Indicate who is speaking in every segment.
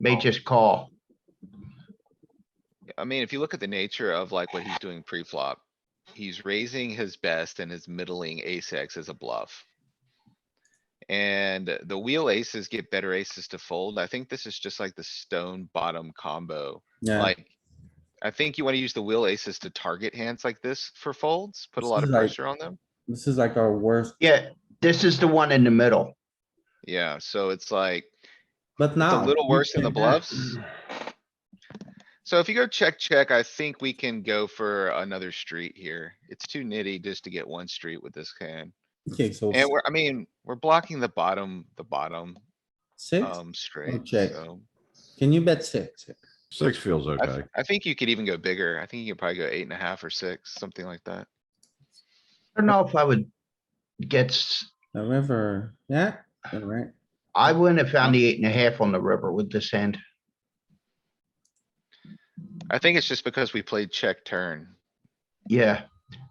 Speaker 1: may
Speaker 2: Oh.
Speaker 1: just call.
Speaker 2: I mean, if you look at the nature of like what he's doing pre-flop, he's raising his best and his middling ace X as a bluff. And the wheel aces get better aces to fold. I think this is just like the stone bottom combo,
Speaker 3: Yeah,
Speaker 2: like. I think you wanna use the wheel aces to target hands like this for folds, put a
Speaker 3: This
Speaker 2: lot
Speaker 3: is
Speaker 2: of
Speaker 3: like-
Speaker 2: pressure on them.
Speaker 3: this is like our worst,
Speaker 1: Yeah, this is the one in the middle.
Speaker 2: Yeah, so it's like,
Speaker 3: but now.
Speaker 2: little
Speaker 3: Oh, you
Speaker 2: worse than the
Speaker 3: can have-
Speaker 2: bluffs. so if you go check, check, I think we can go for another street here. It's too nitty just to get one street with this hand.
Speaker 3: Okay, so
Speaker 2: And we're, I mean, we're blocking the bottom, the bottom,
Speaker 3: six,
Speaker 2: um, straight,
Speaker 3: check.
Speaker 2: so.
Speaker 3: can you bet six?
Speaker 4: Six feels
Speaker 2: I, th-
Speaker 4: okay.
Speaker 2: I think you could even go bigger. I think you could probably go eight and a half or six, something like that.
Speaker 1: I don't know if I would get, s-
Speaker 3: The river, yeah, alright,
Speaker 1: I wouldn't have found the eight and a half on the river with this hand.
Speaker 2: I think it's just because we played check turn.
Speaker 1: Yeah,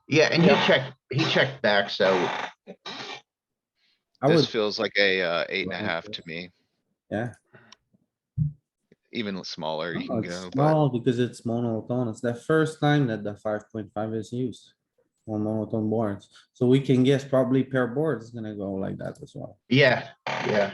Speaker 1: yeah, and he checked, he checked back, so
Speaker 3: I
Speaker 2: This
Speaker 3: would,
Speaker 2: feels like a, uh, eight and a
Speaker 3: Right,
Speaker 2: half
Speaker 3: yeah.
Speaker 2: to me,
Speaker 3: yeah.
Speaker 2: even smaller you
Speaker 3: Oh,
Speaker 2: can
Speaker 3: it's
Speaker 2: go, but
Speaker 3: Small because it's monotone. It's the first time that the five point five is used on monotone boards. So we can guess probably pair board is gonna go like that as well.
Speaker 1: yeah, yeah.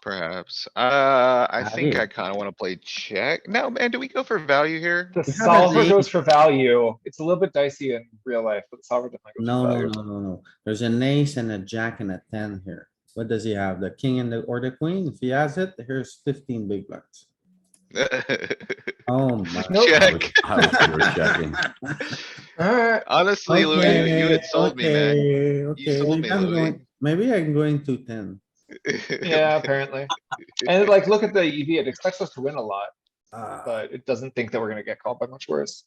Speaker 2: perhaps. Uh, I
Speaker 3: Have
Speaker 2: think
Speaker 3: you?
Speaker 2: I kinda wanna play check. No, man, do we go for value here?
Speaker 5: The
Speaker 3: We have a
Speaker 5: solver
Speaker 3: lead.
Speaker 5: goes for value. It's a little bit dicey in real life, but the solver definitely goes
Speaker 3: No,
Speaker 5: for
Speaker 3: no,
Speaker 5: value.
Speaker 3: no, no, no. There's an ace and a jack and a ten here. What does he have? The king and the, or the queen? If he has it, here's fifteen big bucks. Oh my.
Speaker 5: Nope.
Speaker 4: I
Speaker 2: Check.
Speaker 4: was- I was pure checking.
Speaker 5: Alright,
Speaker 2: Honestly, Louis, you- you had sold me, man.
Speaker 3: Okay, okay,
Speaker 2: sold
Speaker 3: maybe
Speaker 2: me,
Speaker 3: I'm
Speaker 2: Louis.
Speaker 3: going- Maybe I'm going to ten.
Speaker 5: yeah, apparently. And like, look at the EV, it expects us to win a lot,
Speaker 3: Uh,
Speaker 5: but it doesn't think that we're gonna get called by much worse.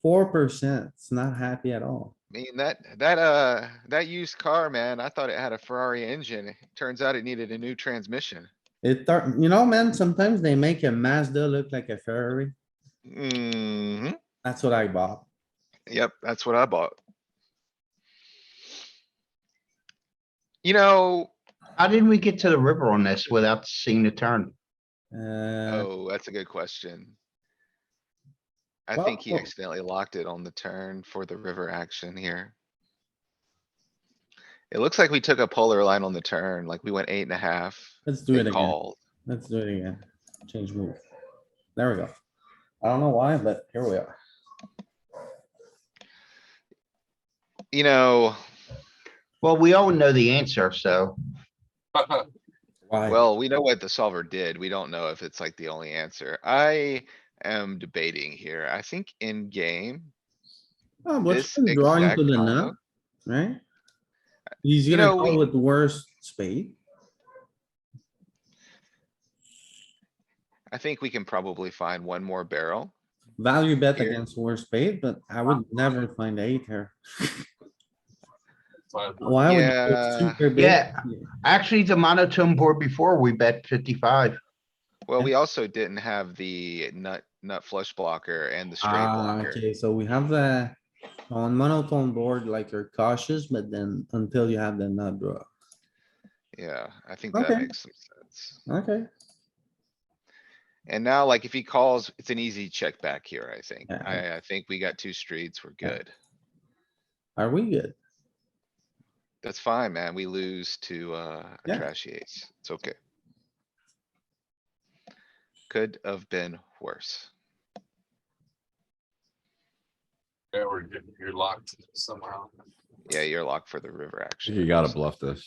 Speaker 3: four percent. It's not happy at all.
Speaker 2: mean, that, that, uh, that used car, man, I thought it had a Ferrari engine. Turns out it needed a new transmission.
Speaker 3: It, tar- you know, man, sometimes they make a Mazda look like a Ferrari.
Speaker 2: hmm
Speaker 3: That's what I bought.
Speaker 2: yep, that's what I bought. You know,
Speaker 1: How did we get to the river on this without seeing the turn?
Speaker 3: Uh,
Speaker 2: oh, that's a good question. I
Speaker 3: Well, oh.
Speaker 2: think he
Speaker 3: well-
Speaker 2: accidentally locked it on the turn for the river action here. It looks like we took a polar line on the turn, like we went eight and a half.
Speaker 3: let's do it
Speaker 2: They
Speaker 3: again.
Speaker 2: called.
Speaker 3: Let's do it again. Change move. There we go. I don't know why, but here we are.
Speaker 2: You know,
Speaker 1: Well, we all know the answer, so
Speaker 3: Why?
Speaker 2: well, we know what the solver did. We don't know if it's like the only answer. I am debating here. I think in game,
Speaker 3: Oh,
Speaker 2: this
Speaker 3: What's been drawing to
Speaker 2: exact
Speaker 3: the
Speaker 2: combo-
Speaker 3: nut, right? He's
Speaker 2: You
Speaker 3: gonna
Speaker 2: know,
Speaker 3: go
Speaker 2: we-
Speaker 3: with worst spade.
Speaker 2: I think we can probably find one more barrel.
Speaker 3: Value bet
Speaker 2: Here.
Speaker 3: against worst spade, but I would never find eight here. Why would? you put
Speaker 2: Yeah.
Speaker 3: super big
Speaker 1: Yeah.
Speaker 3: here?
Speaker 1: actually the monotone board before we bet fifty-five.
Speaker 2: Well,
Speaker 3: Yeah.
Speaker 2: we also didn't have the nut, nut flush blocker and the straight
Speaker 3: Ah,
Speaker 2: blocker.
Speaker 3: okay, so we have the, on monotone board, like you're cautious, but then until you have the nut draw.
Speaker 2: Yeah, I think that
Speaker 3: Okay.
Speaker 2: makes some sense.
Speaker 3: Okay,
Speaker 2: And now, like, if he calls, it's an easy check back here, I think.
Speaker 3: Yeah.
Speaker 2: I, I think we got two streets. We're
Speaker 3: Yeah.
Speaker 2: good.
Speaker 3: are we good?
Speaker 2: That's fine, man. We lose to, uh, a
Speaker 3: Yeah.
Speaker 2: trashy ace. It's okay. Could have been worse.
Speaker 5: uh,
Speaker 6: Yeah, we're getting, you're locked somehow.
Speaker 2: Yeah, you're locked for the river action.
Speaker 4: You gotta bluff this.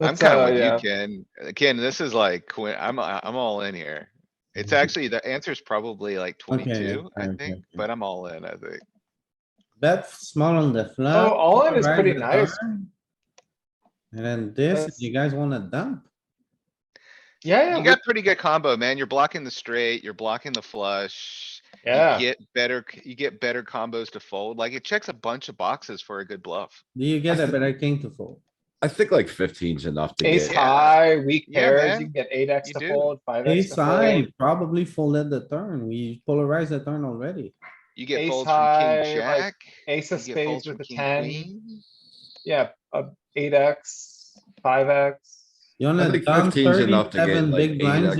Speaker 2: I'm
Speaker 5: That's,
Speaker 2: kinda
Speaker 5: uh,
Speaker 2: with
Speaker 5: yeah.
Speaker 2: you, Ken. Uh, Ken, this is like, Quin- I'm, I- I'm all in here. It's actually, the answer's probably like
Speaker 3: Okay, yeah,
Speaker 2: twenty-two, I
Speaker 3: okay,
Speaker 2: think,
Speaker 3: okay.
Speaker 2: but I'm all in, I think.
Speaker 3: Bet small on the flop.
Speaker 5: Oh, all in is
Speaker 3: right
Speaker 5: pretty
Speaker 3: the
Speaker 5: nice.
Speaker 3: turn. And then this, if
Speaker 5: That's-
Speaker 3: you guys wanna dump?
Speaker 5: Yeah,
Speaker 2: You
Speaker 5: yeah,
Speaker 2: got pretty good combo, man. You're blocking the straight, you're blocking the flush. you
Speaker 5: yeah.
Speaker 2: Get better, c- you get better combos to fold. Like it checks a bunch of boxes for a good bluff.
Speaker 3: Do you get a better king to fold?
Speaker 4: I think like fifteen's enough to
Speaker 5: Ace
Speaker 4: get.
Speaker 2: Yeah.
Speaker 5: high, weak
Speaker 2: Yeah,
Speaker 5: pairs,
Speaker 2: man.
Speaker 5: you can get eight X
Speaker 2: You
Speaker 5: to
Speaker 2: do.
Speaker 5: fold, five X
Speaker 3: Ace
Speaker 5: to
Speaker 3: high,
Speaker 5: fold.
Speaker 3: probably folded the turn. We polarized the turn already.
Speaker 2: You get
Speaker 5: Ace
Speaker 2: folds from king
Speaker 5: high, like,
Speaker 2: jack.
Speaker 5: Ace of
Speaker 2: you get
Speaker 5: spades
Speaker 2: folds
Speaker 5: with
Speaker 2: from
Speaker 5: a
Speaker 2: king
Speaker 5: ten,
Speaker 2: queen.
Speaker 5: yeah, uh, eight X, five X.
Speaker 3: You wanna
Speaker 4: think
Speaker 3: dump
Speaker 4: 15 's enough to get
Speaker 3: thirty-seven
Speaker 4: like
Speaker 3: big
Speaker 4: eight
Speaker 3: blinds